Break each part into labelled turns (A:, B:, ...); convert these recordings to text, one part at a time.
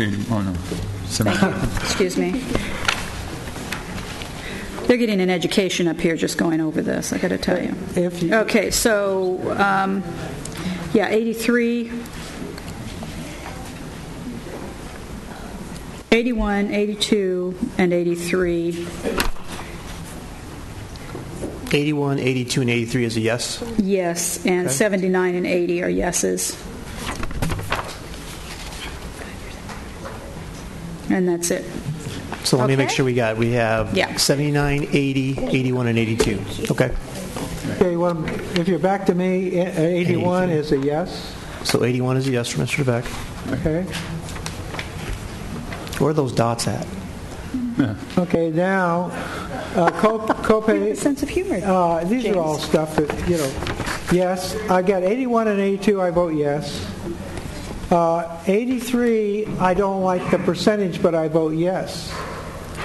A: Oh, no. Seven-
B: Excuse me. They're getting an education up here just going over this, I got to tell you.
C: If you-
B: Okay, so, um, yeah, 83, 81, 82, and 83,
C: 81, 82, and 83 is a yes.
B: yes, and 79 and 80 are yeses. And that's it.
C: So let me make
B: Okay.
C: sure we got, we
B: Yeah.
C: have 79, 80, 81, and 82. Okay.
D: Okay, well, if you're back to me, eh, 81 is a yes,
C: So 81 is a yes for Mr. DeBeck.
D: okay?
C: Where are those dots at?
D: Okay, now, uh, co-
B: A
D: copay,
B: sense of humor.
C: Oh.
D: uh, these are all
B: James.
D: stuff that, you know, yes, I got 81 and 82, I vote yes. Uh, 83, I don't like the percentage, but I vote yes.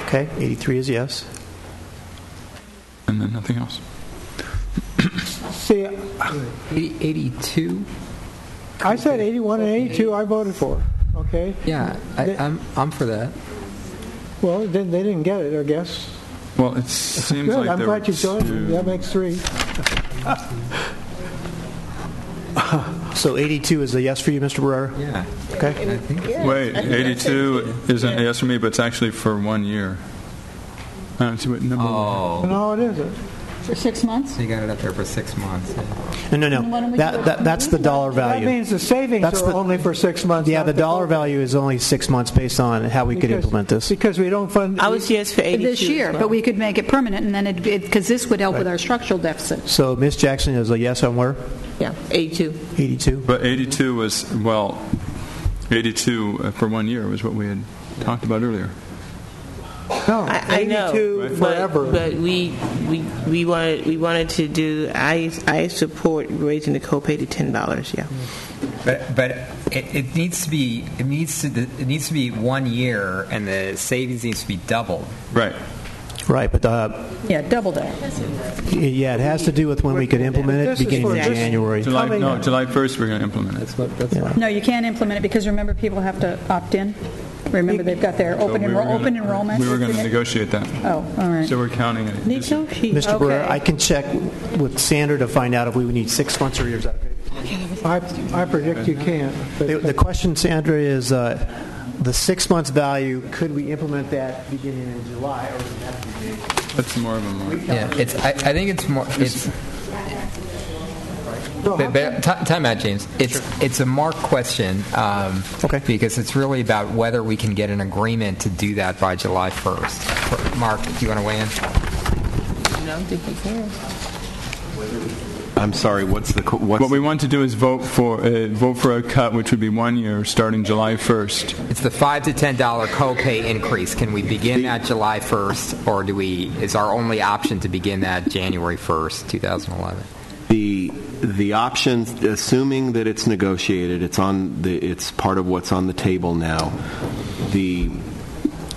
C: Okay, 83 is a yes.
A: And then nothing else.
D: See,
E: 82?
D: I said 81 and 82, I voted for, okay?
E: Yeah, I, I'm, I'm for that.
D: Well, then they didn't get it, I guess.
A: Well, it seems
D: Good,
A: like
D: I'm
A: there were
D: glad you joined me,
A: two-
D: that makes three.
C: So 82 is a yes for you, Mr. Barrera?
E: Yeah.
C: Okay.
E: I think
A: Wait, 82 isn't a yes for me, but it's actually for one year. I don't see what number.
E: Oh,
D: No, it isn't.
B: For six months?
E: so you got it up there for six months. yeah.
C: No, no,
B: Then why don't we do
C: no. That,
B: it
C: that, that's the dollar
D: That
C: value.
D: means the savings
C: That's
D: are
C: the-
D: only for six months.
C: Yeah,
D: not
C: the dollar
D: full-
C: value is only six months based on how we could
D: Because-
C: implement this.
D: Because we don't fund.
F: I was yes for 82
B: This year,
F: as
B: but
F: well.
B: we could make it permanent, and then it'd be, because this would help with our structural deficit.
C: So Ms. Jackson is a yes on where?
F: yeah 82
C: 82?
A: But 82 was, well, 82 for one year was what we had talked about earlier.
D: No,
F: I, I know
D: 82
F: but,
D: forever.
F: but we we we wanted we wanted to do I I support raising the copay to ten dollars yeah
E: But, but it, it needs to be, it needs to, it needs to be one year and the savings needs to be doubled.
A: Right.
C: Right, but, uh,
B: Yeah, double that.
C: yeah, it has to do with when we could implement it,
D: This is
C: beginning
D: for
C: in
D: just-
C: January.
A: July,
D: Coming
A: no,
D: up.
A: July 1st, we're going to implement it.
E: That's what, that's
C: Yeah.
B: No, you can't implement it, because remember, people have to opt in. Remember, they've got their
A: So
B: open
A: we were
B: enro-
A: gonna-
B: open enrollment.
A: We were going to negotiate that.
B: Oh, all right.
A: So we're counting it.
C: Mr. Barrera,
B: Okay.
C: I can check with Sandra to find out if we would need six months or years.
D: I, I predict you can't. but-
C: The the question, Sandra, is uh, the six months value, could we implement that beginning in July? or would it have to be May?
A: That's more of a mark.
E: Yeah, it's, I, I think it's more, it's,
D: No,
E: But,
D: how-
E: but, ti- time out, James. It's it's a mark question. Um,
C: Okay.
E: Because it's really about whether we can get an agreement to do that by July 1st. Mark, do you want to weigh in?
F: no I think we can
G: I'm sorry, what's the, co- what's,
A: What we want to do is vote for, uh, vote for a cut, which would be one year, starting July 1st.
E: It's the five to ten dollar copay increase. Can we begin that July 1st, or do we? Is our only option to begin that January 1st, 2011?
G: the, the option, assuming that it's negotiated, it's on, the it's part of what's on the table now, the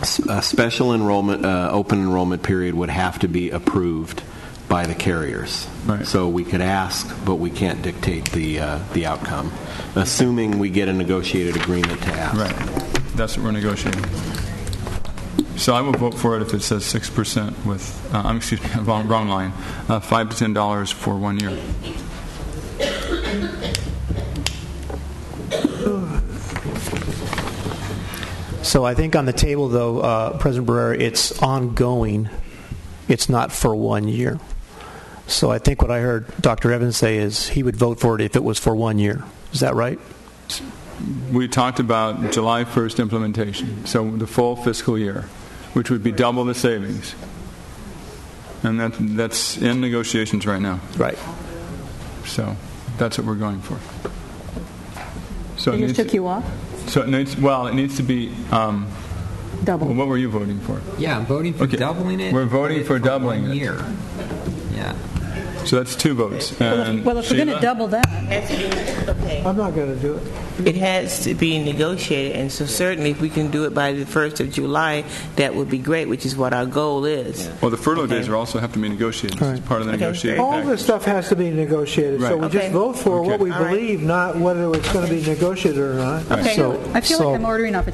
G: s- uh, special enrollment, uh, open enrollment period would have to be approved by the carriers.
A: Right.
G: So we could ask, but we can't dictate the, uh, the outcome, assuming we get a negotiated agreement to ask.
A: Right. That's what we're negotiating. So I will vote for it if it says 6% with, uh, I'm, excuse me, wrong, wrong line, uh, 5 to $10 for one year.
C: So I think on the table, though, uh, President Barrera, it's ongoing. It's not for one year. So I think what I heard Dr. Evans say is he would vote for it if it was for one year. Is that right?
A: We talked about July 1st implementation, so the full fiscal year, which would be double the savings. And that, that's in negotiations right now.
C: Right.
A: So that's what we're going for. So it
B: They just
A: needs-
B: took you off?
A: So it needs, well, it needs to be, um, well,
B: Double.
A: what were you voting for?
E: Yeah, I'm voting for
A: Okay.
E: doubling it.
A: We're voting
E: but
A: for
E: it's
A: doubling
E: one
A: it.
E: year. Yeah.
A: So that's two votes.
B: Well, if-
A: And
B: well, if we're going to
A: Sheila?
B: double that,
D: I'm not going to do it.
F: it has to be negotiated and so certainly if we can do it by the first of July that would be great which is what our goal is
A: Well, the furlough days
F: Okay.
A: are also have to be negotiated. This is part of the negotiating
D: All this
A: package.
D: stuff has to be negotiated, so
A: Right.
D: we just
F: Okay.
D: vote for what
A: Okay.
D: we
F: All right.
D: believe, not whether it's going to be negotiated or not.
C: So,
B: I feel
C: so-
B: like I'm ordering off a